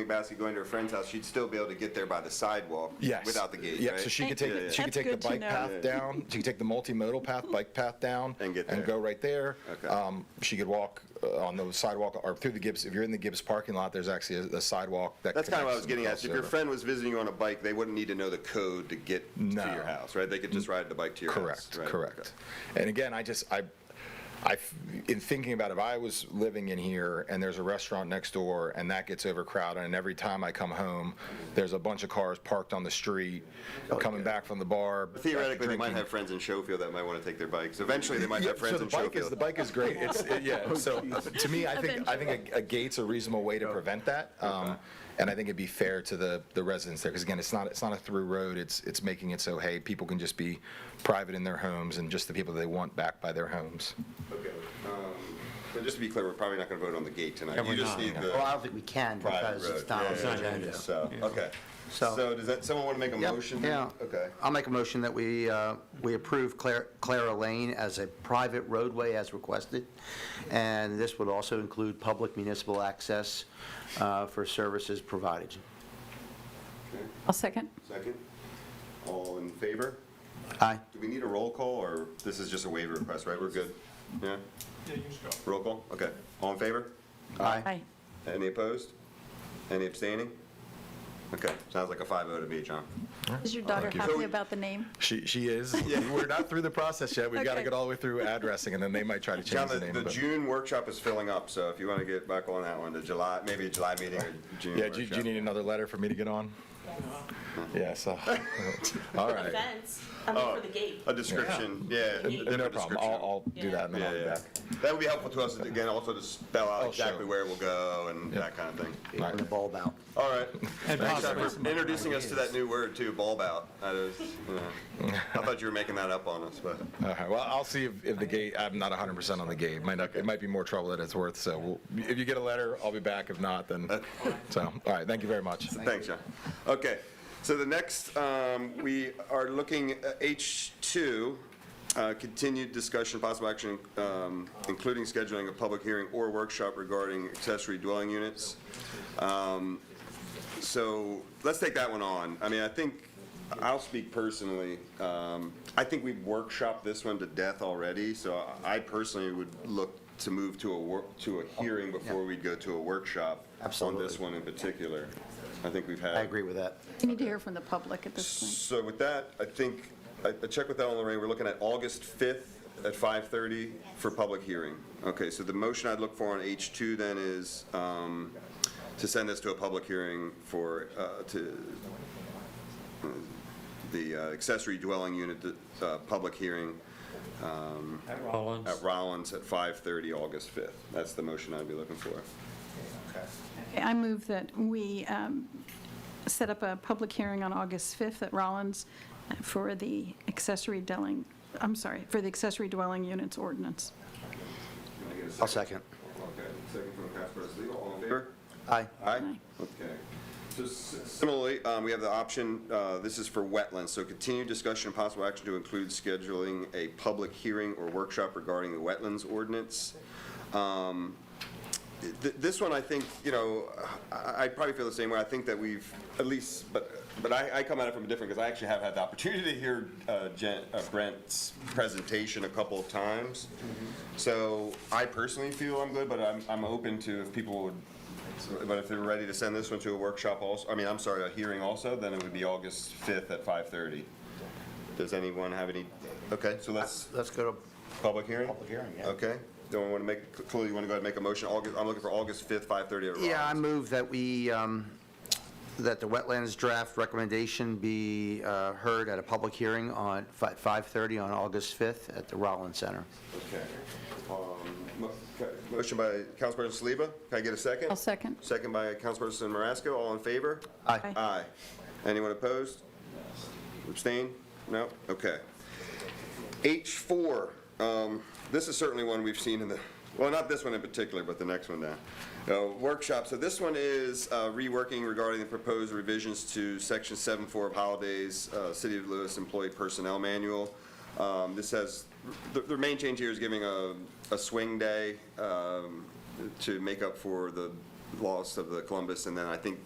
McBaskey going to her friend's house, she'd still be able to get there by the sidewalk. Yes. Without the gate, Yeah, right? so she could Yeah, yeah. take, she could That's take the good to bike know. path down, she could take the multimodal path, bike path down. And get there. go right there. Okay. Um, She could walk uh, on the sidewalk or through the Gibbs, if you're in the Gibbs parking lot, there's actually a- a sidewalk that That's kind of what I connects was getting and at. If your crosses over. friend was visiting you on a bike, they wouldn't need to know the code to get to No. your house, right? They could just ride the bike to your house. Correct, right? correct. And again, I just, I, I, f- in thinking about if I was living in here and there's a restaurant next door and that gets overcrowded and every time I come home, there's a bunch of cars parked on the street, coming back from the bar. Okay. Oh, Theoretically, they might drinking. have friends in Schofield that might want to take their bikes. Eventually, they might Yeah, have friends so in the bike is the Schofield. bike is great. It's it- yeah. So to me, I think I think a, a gate's a reasonable way to prevent that, um, and I think it'd be fair to the the residents there because again, it's not it's not a through road. It's it's making it so hey, people can just be private in their homes and just the people they want back by their homes. Okay. Um, But just to be clear, we're probably not going to vote on the gate tonight. we're You just not. need Well, I the don't think we can private because road. it's not on Yeah, the yeah, yeah. agenda. So, okay. So- So does that, someone want to make a Yep, motion? Yeah. Okay. I'll make a motion that we, uh, we approve Clara, Clara Lane as a private roadway as requested. And this would also include public municipal access, uh, for services provided. I'll second. Second. All in favor? Aye. Do we need a roll call, or this is just a waiver request, right? We're good? Yeah? Yeah, you can just go. Roll call? Okay. All in favor? Aye. Any opposed? Any abstaining? Okay, sounds like a 5-0 to me, John. Is your daughter Thank you. happy about the name? She she is. We're not through the process yet. We've got to Okay. get all the way through addressing, and then they might try to John, change the, the name. the but- June workshop is filling up, so if you want to get back on that one, the July, maybe a July meeting or June yeah. Do, you- do you workshop. need another letter for me to get on? Yeah. So all For the right. Oh. fence, I mean, for the gate. A description, yeah. a Yeah. different No problem. I'll, I'll do Yeah. that and then Yeah, I'll be yeah. back. That would be helpful to us, again, also to spell out Oh, sure. exactly where we'll go and Yeah. that kind of thing. Taking the bulb out. All right. And Thanks possibly John, some for other introducing us to ideas. that new word too, bulb out. That is, you know, I thought you were making that up on us, but. All right, well, I'll see if, if the gate, I'm not hundred percent on the gate, might not, it might be more trouble than it's worth, so we'll- if you get a letter, I'll be back, if not, then, so, all right, thank you very much. Thanks, John. Okay, so the next, um, we are looking at H2, uh, continued discussion, possible action, um, including scheduling a public hearing or workshop regarding accessory dwelling units. Um, So let's take that one on. I mean, I think, I'll speak personally, um, I think we've workshopped this one to death already, so I personally would look to move to a, wor- to a hearing before we'd go to a workshop on Absolutely. this one in particular. I think we've had. I agree with that. We need to hear from the public at this point. So with that, I think, I I checked with Ellen Lorraine, we're looking at August 5th at 5:30 for public hearing. Okay, so the motion I'd look for on H2 then is um, to send this to a public hearing for, uh, to, uh, the uh, accessory dwelling unit, uh, public hearing At Rollins. at Rollins at 5:30, August 5th. That's the motion I'd be looking for. Okay, I move that we um, set up a public hearing on August 5th at Rollins uh, for the accessory dwelling, I'm sorry, for the accessory dwelling units ordinance. Can I get a I'll second. Okay, second from Councilperson Leal, all in favor? Aye. Aye? Okay. So s- Similarly, um, we have the option, uh, this is for wetlands, so continued discussion and possible action to include scheduling a public hearing or workshop regarding the wetlands ordinance. Um, th- This one, I think, you know, I I probably feel the same way. I think that we've, at least, but, but I I come at it from a different, because I actually have had the opportunity to hear uh, Jen- uh, Brent's presentation a couple of times. So I personally feel I'm good, but I'm, I'm open to if people would, but if they're ready to send this one to a workshop also, I mean, I'm sorry, a hearing also, then it would be August 5th at 5:30. Does anyone have any, okay, so let's, Let's go to public hearing? Public hearing, yeah. Okay, do I want to make, Chloe, you want to go ahead and make a motion? August, I'm looking for August 5th, 5:30 at Rollins. Yeah, I move that we, um, that the wetlands draft recommendation be uh, heard at a public hearing on, fi- 5:30 on August 5th at the Rollins Center. Okay. Um, mo- ca- Motion by Councilperson Saliba, can I get a second? I'll second. Second by Councilperson Marasco, all in favor? Aye. Aye. Aye. Anyone opposed? Abstain? No? Okay. H4, um, this is certainly one we've seen in the, well, not this one in particular, but the next one down. Uh, Workshop, so this one is uh, reworking regarding the proposed revisions to Section 7.4 of Holidays, uh, City of Lewis Employee Personnel Manual. Um, This has, the, the main change here is giving a, a swing day um, to make up for the laws of the Columbus, and then I think